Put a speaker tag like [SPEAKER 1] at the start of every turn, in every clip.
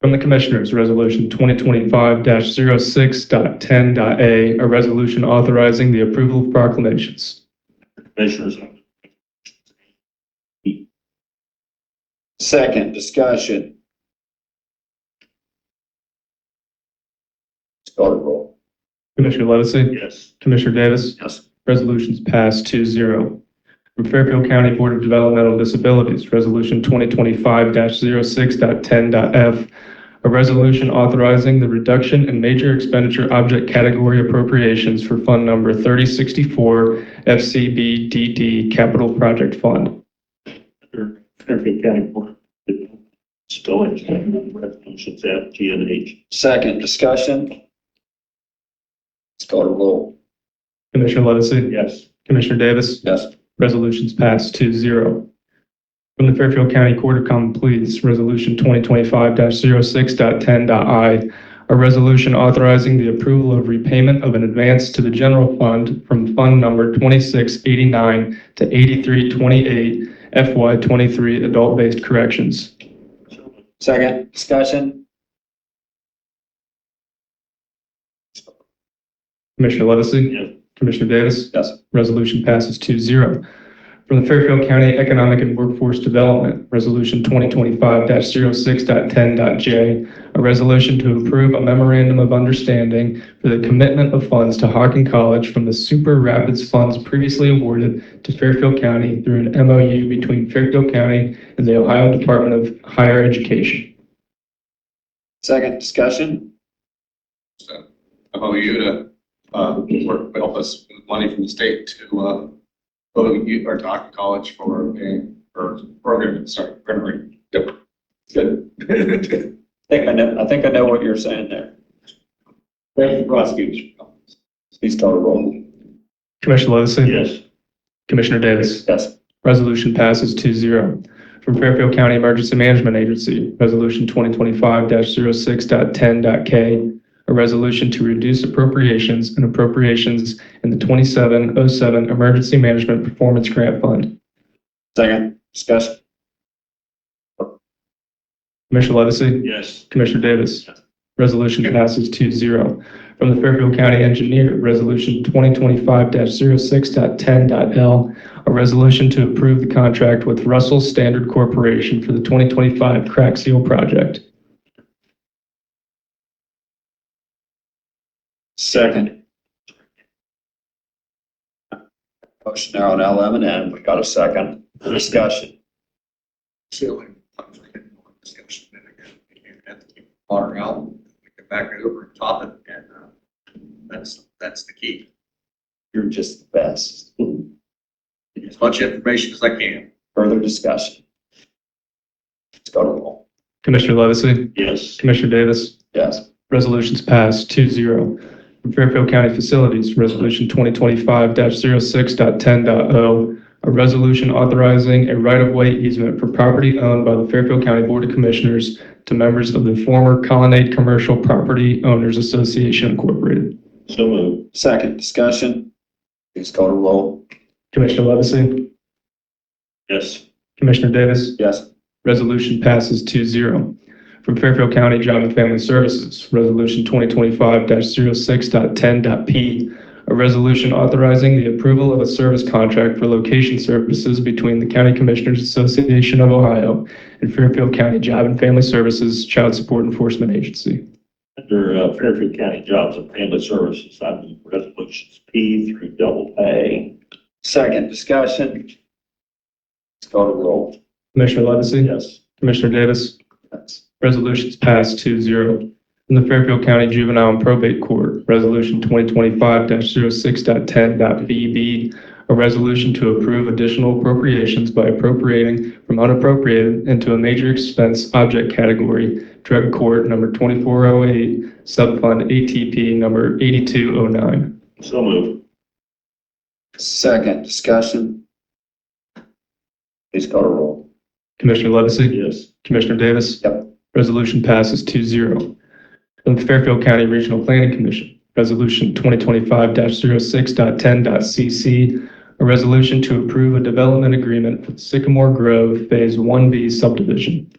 [SPEAKER 1] From the Commissioners, Resolution 2025-06.10.a, a resolution authorizing the approval of proclamations.
[SPEAKER 2] Commissioners,
[SPEAKER 3] Second, discussion. Start roll.
[SPEAKER 1] Commissioner Levesey?
[SPEAKER 2] yes.
[SPEAKER 1] Commissioner Davis?
[SPEAKER 3] Yes.
[SPEAKER 1] Resolutions passed 2-0. From Fairfield County Board of Developmental Disabilities, Resolution 2025-06.10.f, a resolution authorizing the reduction in major expenditure object category appropriations for Fund Number 3064 FCBDD Capital Project Fund.
[SPEAKER 2] Under Fairfield County Board of Disabilities, resolutions F, G, and H.
[SPEAKER 3] Second, discussion. Start roll.
[SPEAKER 1] Commissioner Levesey?
[SPEAKER 2] Yes.
[SPEAKER 1] Commissioner Davis?
[SPEAKER 3] Yes.
[SPEAKER 1] Resolutions passed 2-0. From the Fairfield County Court of Common Pleas, Resolution 2025-06.10.i, a resolution authorizing the approval of repayment of an advance to the general fund from Fund Number 2689 to 8328 FY23 Adult-Based Corrections.
[SPEAKER 2] So moved.
[SPEAKER 3] Second, discussion.
[SPEAKER 1] Commissioner Levesey?
[SPEAKER 2] Yes.
[SPEAKER 1] Commissioner Davis?
[SPEAKER 3] Yes.
[SPEAKER 1] Resolution passes 2-0 From the Fairfield County Economic and Workforce Development, Resolution 2025-06.10.j, a resolution to approve a memorandum of understanding for the commitment of funds to Hockin College from the Super Rapids funds previously awarded to Fairfield County through an MOU between Fairfield County and the Ohio Department of Higher Education.
[SPEAKER 3] Second, discussion.
[SPEAKER 4] MOU to, uh, work, help us with money from the state to, uh, go to our Doc College for a, for program, sorry, primary. Yep. Good.
[SPEAKER 3] I think I know, I think I know what you're saying there. Thank you, prosecutors. Please start roll.
[SPEAKER 1] Commissioner Levesey?
[SPEAKER 2] Yes.
[SPEAKER 1] Commissioner Davis?
[SPEAKER 3] Yes.
[SPEAKER 1] Resolution passes 2-0 From Fairfield County Emergency Management Agency, Resolution 2025-06.10.k, a resolution to reduce appropriations and appropriations in the 2707 Emergency Management Performance Grant Fund.
[SPEAKER 3] Second, discussion.
[SPEAKER 1] Commissioner Levesey?
[SPEAKER 2] Yes.
[SPEAKER 1] Commissioner Davis? Resolution passes 2-0 From the Fairfield County Engineer, Resolution 2025-06.10.l, a resolution to approve the contract with Russell Standard Corporation for the 2025 crack seal project.
[SPEAKER 3] Second. Motion there on L, M, and N. We got a second. Discussion.
[SPEAKER 4] Ceiling. Discussion, and again, you have to keep Water out, we can back it over and top it, and, uh, that's, that's the key.
[SPEAKER 3] You're just the best.
[SPEAKER 4] As much information as I can.
[SPEAKER 3] Further discussion. Let's go to roll.
[SPEAKER 1] Commissioner Levesey?
[SPEAKER 2] Yes.
[SPEAKER 1] Commissioner Davis?
[SPEAKER 3] Yes.
[SPEAKER 1] Resolutions passed 2-0 From Fairfield County Facilities, Resolution 2025-06.10.o, a resolution authorizing a right-of-way easement for property owned by the Fairfield County Board of Commissioners to members of the former Colonnade Commercial Property Owners Association Incorporated.
[SPEAKER 2] So moved.
[SPEAKER 3] Second, discussion. Please go to roll.
[SPEAKER 1] Commissioner Levesey?
[SPEAKER 2] Yes.
[SPEAKER 1] Commissioner Davis?
[SPEAKER 3] Yes.
[SPEAKER 1] Resolution passes 2-0 From Fairfield County Job and Family Services, Resolution 2025-06.10.p, a resolution authorizing the approval of a service contract for location services between the County Commissioners Association of Ohio and Fairfield County Job and Family Services Child Support Enforcement Agency.
[SPEAKER 2] Under uh, Fairfield County Jobs and Family Services, I move resolutions P through double A.
[SPEAKER 3] Second, discussion. Let's go to roll.
[SPEAKER 1] Commissioner Levesey?
[SPEAKER 2] Yes.
[SPEAKER 1] Commissioner Davis?
[SPEAKER 3] Yes.
[SPEAKER 1] Resolutions passed 2-0 From the Fairfield County Juvenile and Probate Court, Resolution 2025-06.10.VB, E a resolution to approve additional appropriations by appropriating from unappropriated into a major expense object category, Drug Court Number 2408, Subfund ATP Number 8209.
[SPEAKER 2] So moved.
[SPEAKER 3] Second, discussion. Please go to roll.
[SPEAKER 1] Commissioner Levesey?
[SPEAKER 2] Yes.
[SPEAKER 1] Commissioner Davis?
[SPEAKER 3] Yep.
[SPEAKER 1] Resolution passes 2-0 From the Fairfield County Regional Planning Commission, Resolution 2025-06.10.c.c, a resolution to approve a development agreement for Sycamore Grove Phase 1B subdivision.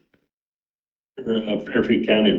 [SPEAKER 2] Under uh, Fairfield County